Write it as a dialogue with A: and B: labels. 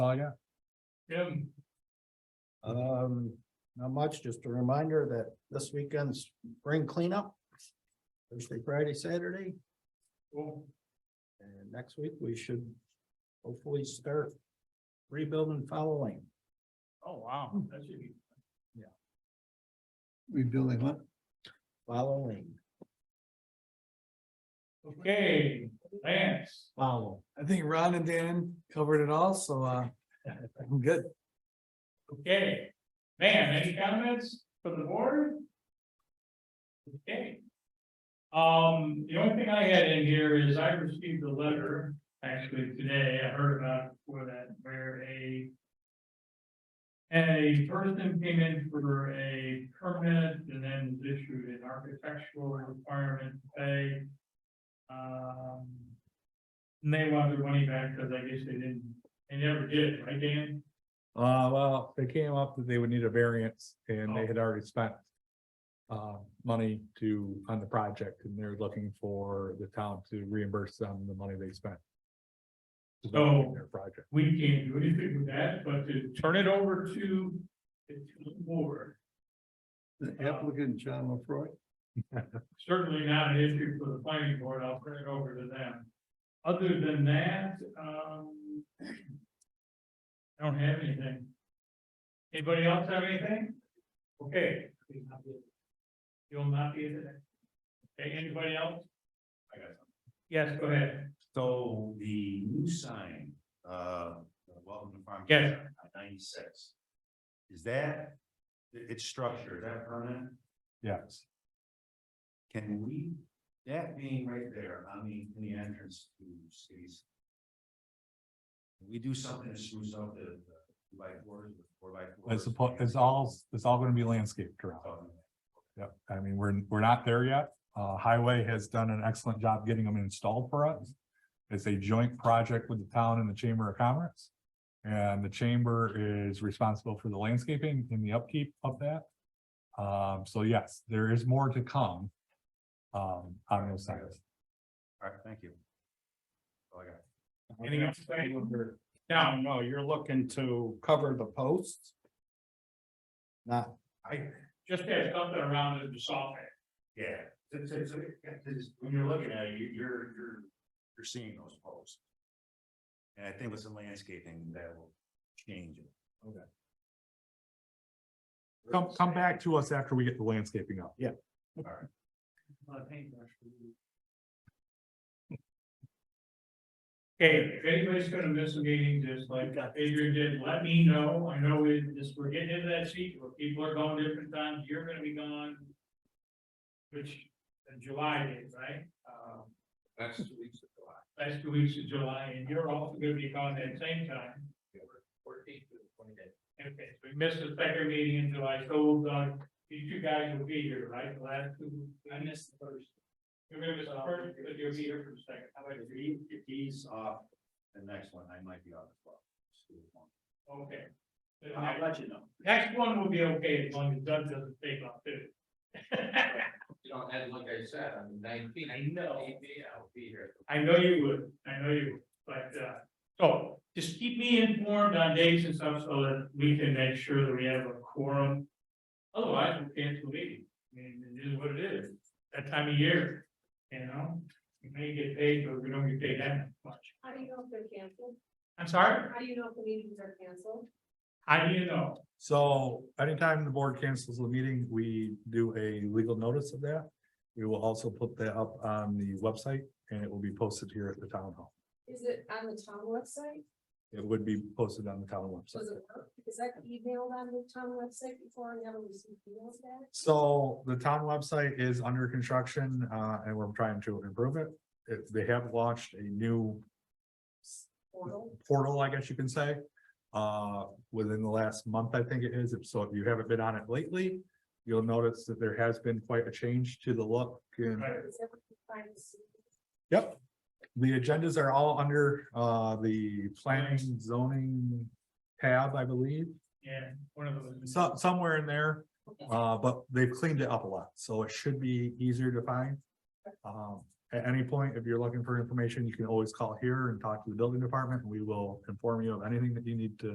A: Oh, yeah.
B: Jim,
A: Um, not much, just a reminder that this weekend's spring cleanup. Thursday, Friday, Saturday,
B: well,
A: and next week we should hopefully start rebuilding Fowl Lane.
B: oh, wow, that should be,
A: Rebuilding what? Fowl Lane.
B: okay, Lance,
A: Follow.
C: I think Ron and Dan covered it all, so uh, I'm good.
B: okay. Man, any comments from the board? Okay. Um, the only thing I had in here is I received a letter, actually today, I heard about it before that, where a a person came in for a permit and then was issued an architectural requirement to pay. Um, and they want their money back because I guess they didn't, they never did, right, Dan?
C: Uh, well, they came up that they would need a variance and they had already spent uh, money to, on the project and they're looking for the town to reimburse them the money they spent. developing Their project.
B: we can't do anything with that, but to turn it over to the town board,
A: The
B: applicant,
A: John LaFroy.
B: certainly not an issue for the planning board, I'll turn it over to them. Other than that, um, I don't have anything. Anybody else have anything? Okay. You'll not be there. Okay, anybody else?
D: I got something.
B: Yes, go ahead.
D: So the new sign, uh, welcome to farm.
B: Yes.
D: Ninety-six. Is that, i- its structure, is that permanent?
C: Yes.
D: Can we, that being right there on the, in the entrance to cities. can We do something to spruce up the the two by fours, the four by
C: It's,
D: fours.
C: suppo- it's all, it's all gonna be landscaped around.
D: Um,
C: Yep, I mean, we're, we're not there yet. Uh, Highway has done an excellent job getting them installed for us. It's a joint project with the town and the Chamber of Commerce. And the chamber is responsible for the landscaping and the upkeep of that. Um, so yes, there is more to come. Um, on those sides.
D: All right, thank you. Oh, I got it.
B: Anything else?
A: Down, no, you're looking to cover the posts? Not
D: I,
B: Just have something around it to solve it.
D: yeah, it's, it's, it's, when you're looking at it, you- you're, you're, you're seeing those posts. And I think with some landscaping, that will change it.
C: Come, come back to us after we get the landscaping up.
B: lot of paintbrush. Okay, if anybody's gonna miss a meeting, just like Adrian did, let me know. I know we, this, we're getting into that seat where people are going different times. You're gonna be gone. Which, uh, July is, right? Um,
D: That's two weeks of July.
B: last two weeks of July, and you're also gonna be gone that same time.
D: Fourteenth to the twenty eighth.
B: Okay, so we missed the second meeting in July, so, uh, these two guys will be here, right, the last two? I missed the first. You remember the first, but you'll be here for the second. How about
D: If he, if he's off, the next one, I might be off as well.
B: you? Okay. So the
D: I'll let you know.
B: next- Next one will be okay as long as Doug doesn't take off too.
E: You know, and like I said, on the nineteenth.
B: I know.
E: maybe I'll be here.
B: I know you would, I know you would, but, uh, so just keep me informed on dates and stuff so that we can make sure that we have a quorum. Otherwise, we'll cancel the meeting, I mean, it is what it is, that time of year, you know, we may get paid, but we don't get paid that much.
F: How do you know if they're canceled?
B: I'm sorry,
F: How do you know if the meetings are canceled?
B: how do you know?
C: So anytime the board cancels the meeting, we do a legal notice of that. We will also put that up on the website and it will be posted here at the town hall.
F: Is it on the town website?
C: It would be posted on the town
F: Does
C: website.
F: it work? Is that emailed on the town website before and never received emails back?
C: So the town website is under construction, uh, and we're trying to improve it. If they have launched a new
F: Portal?
C: portal, I guess you can say. Uh, within the last month, I think it is. If So if you haven't been on it lately, you'll notice that there has been quite a change to the look and
B: Right.
F: Is everything fine to see?
C: Yep. The agendas are all under uh the planning zoning tab, I believe,
B: Yeah, one of those.
C: so somewhere in there. Uh, but they've cleaned it up a lot, so it should be easier to find. Um, At any point, if you're looking for information, you can always call here and talk to the building department, and we will inform you of anything that you need to